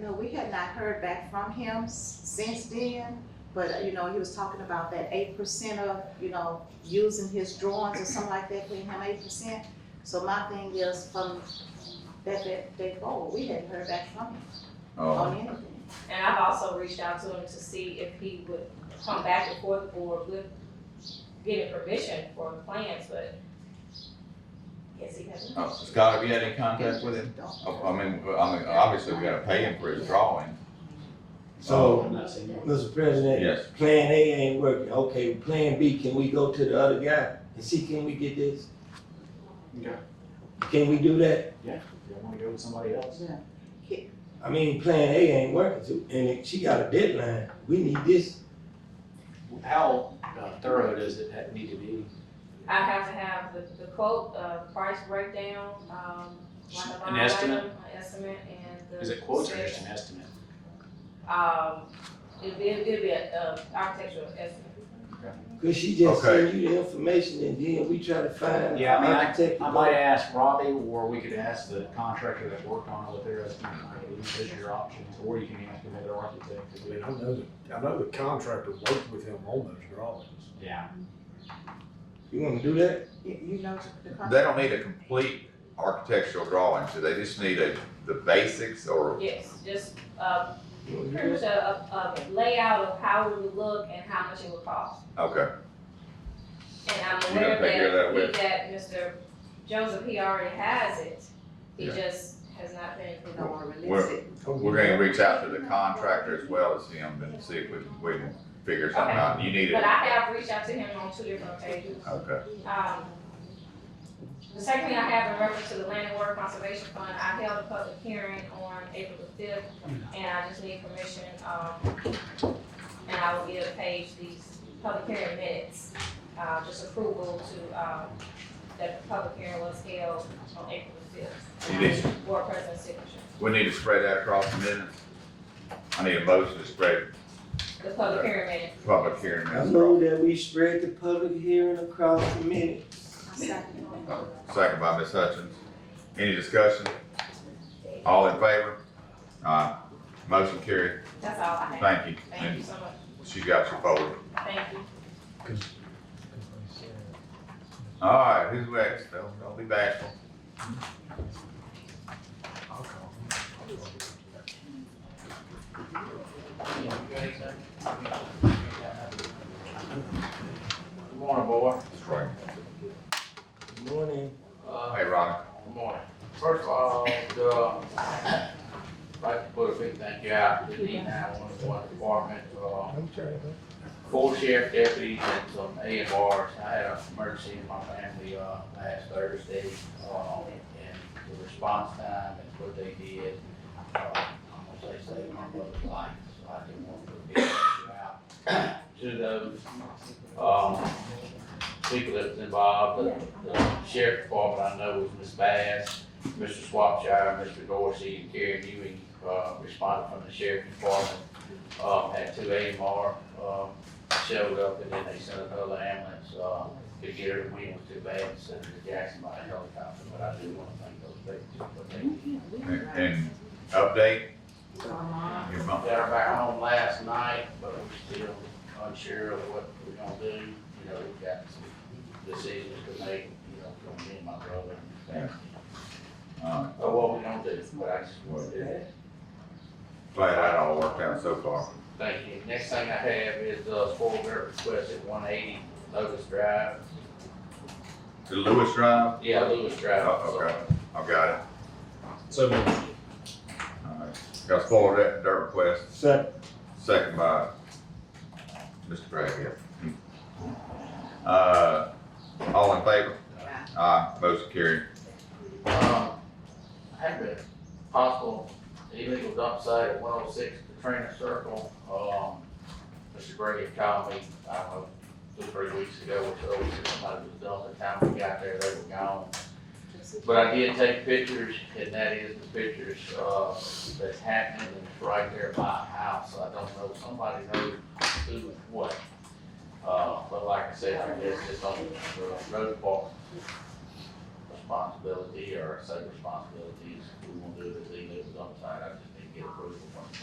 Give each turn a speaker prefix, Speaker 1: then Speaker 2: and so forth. Speaker 1: You know, we had not heard back from him s- since then, but, uh, you know, he was talking about that eight percent of, you know, using his drawings or something like that, paying him eight percent. So my thing is from that, that day forward, we hadn't heard back from him
Speaker 2: Oh,
Speaker 1: on anything.
Speaker 3: And I've also reached out to him to see if he would come back before the board with getting permission for plans, but yes, he hasn't.
Speaker 2: oh, Scott, have you had any contact with him? Oh,
Speaker 1: Don't-
Speaker 4: Oh,
Speaker 2: I I mean, I mean, obviously, we gotta pay him for his drawing.
Speaker 5: Oh,
Speaker 6: So, Mr. President,
Speaker 2: Yes,
Speaker 6: Plan A ain't working, okay, Plan B, can we go to the other guy and see, can we get this?
Speaker 5: Yeah.
Speaker 6: Can we do that?
Speaker 5: You wanna go with somebody else?
Speaker 1: Yeah.
Speaker 6: I mean, Plan A ain't working, so- and it- she got a deadline, we need this.
Speaker 5: How uh, thorough does it ha- need to be?
Speaker 3: I have to have the, the quote, uh, price breakdown, um, like a
Speaker 5: An
Speaker 3: line
Speaker 5: estimate?
Speaker 3: item, An estimate and the.
Speaker 5: Is it quotes or
Speaker 3: specs.
Speaker 5: just an estimate?
Speaker 3: Um, it'd be, it'd be a, uh, architectural estimate.
Speaker 6: Cause she just
Speaker 2: Okay.
Speaker 6: send you the information and then we try to find
Speaker 5: Yeah, I mean,
Speaker 6: an architect.
Speaker 5: I might ask Robbie, or we could ask the contractor that worked on it, what their estimate might be, those are your options, or you can ask another architect to
Speaker 7: I
Speaker 5: do
Speaker 7: mean,
Speaker 5: it.
Speaker 7: I know, the- I know the contractor worked with him on those drawings.
Speaker 5: Yeah,
Speaker 6: You wanna do that?
Speaker 1: You you know, the con-
Speaker 2: they don't need a complete architectural drawing, so they just need a, the basics or,
Speaker 3: Yes, just, uh,
Speaker 6: You wanna do
Speaker 3: pretty much
Speaker 6: that?
Speaker 3: a, a, a layout of how it would look and how much it would cost.
Speaker 2: okay,
Speaker 3: And I'm
Speaker 2: You gotta
Speaker 3: aware
Speaker 2: figure that
Speaker 3: that,
Speaker 2: with-
Speaker 3: that Mr. Joseph, he already has it. He
Speaker 2: Yeah.
Speaker 3: just has not been,
Speaker 1: they don't wanna release
Speaker 2: We're-
Speaker 1: it.
Speaker 2: we're gonna reach out to the contractor as well as him and see if we, can- we can figure something out. You need
Speaker 3: but
Speaker 2: it,
Speaker 3: I have reached out to him on two different occasions.
Speaker 2: okay,
Speaker 3: Um, The second thing I have in reference to the Land and Water Conservation Fund, I held a public hearing on April the fifth, and I just need permission, um, and I will give Paige these public hearing minutes, uh, just approval to, um, that the public hearing was held on April the fifth.
Speaker 2: You need-
Speaker 3: Board president's signature,
Speaker 2: we need to spread that across the minutes. I need a motion to spread
Speaker 3: the public hearing minutes.
Speaker 2: public hearing
Speaker 6: I
Speaker 2: minutes.
Speaker 6: know that we spread the public hearing across the minute.
Speaker 1: I second it.
Speaker 2: across. Second by Ms. Hutchins, any discussion? All in favor? Aye, motion carried,
Speaker 3: That's all I have.
Speaker 2: thank you,
Speaker 3: Thank you
Speaker 2: and
Speaker 3: so much.
Speaker 2: she got your folder.
Speaker 3: Thank you.
Speaker 2: All right, who's next? Don't, don't be bashful.
Speaker 7: I'll call him.
Speaker 5: good morning, boy.
Speaker 2: That's right.
Speaker 6: Good morning.
Speaker 2: Hey, Ronnie.
Speaker 4: Good morning. First of all, uh, I'd like to put a big thank you out to the D nine one one department, uh, four sheriff deputies and some A and Rs. I had an emergency in my family, uh, last Thursday, uh, and the response time and what they did, uh, I'm gonna say saved my brother's life, so I didn't want to put a big thank you out to those, um, people that was involved, the, the sheriff department I know was Ms. Bass, Mr. Swapshire, Mr. Dorsey, and Karen Ewing, uh, responded from the sheriff department. Um, had two AMR, um, showed up and then they sent another ambulance, uh, to get her, we was too bad, and sent her to Jackson by helicopter, but I do wanna thank those people for what they did.
Speaker 2: And, and update your mom.
Speaker 4: Got her back home last night, but we're still unsure of what we're gonna do. You know, we've got some decisions to make, you know, from me and my brother.
Speaker 2: All right,
Speaker 4: But what we're gonna do, but I just wanted to,
Speaker 2: glad that all worked out so far.
Speaker 4: thank you. Next thing I have is, uh, four dirt request at one eighty Lotus Drive.
Speaker 2: To Lewis Drive?
Speaker 4: Yeah, Lewis Drive.
Speaker 2: Oh, okay, I've got it.
Speaker 5: So
Speaker 2: All right, got spoiled that dirt request,
Speaker 6: Second.
Speaker 2: second by Mr. Gray here. Hmm. Uh, all in favor?
Speaker 1: Aye.
Speaker 2: Aye, motion carried.
Speaker 4: Um, I have a possible illegal dump site at one oh six Katrina Circle. Um, Mr. Gray had called me, I don't know, two, three weeks ago or so, he said somebody was dumping, time we got there, they were gone. But I did take pictures, and that is the pictures, uh, that's happening, and it's right there by a house, I don't know, somebody knows who and what. Uh, but like I said, I guess it's on the road department responsibility, or I say responsibilities, we won't do it, they live on site, I just think get approval from the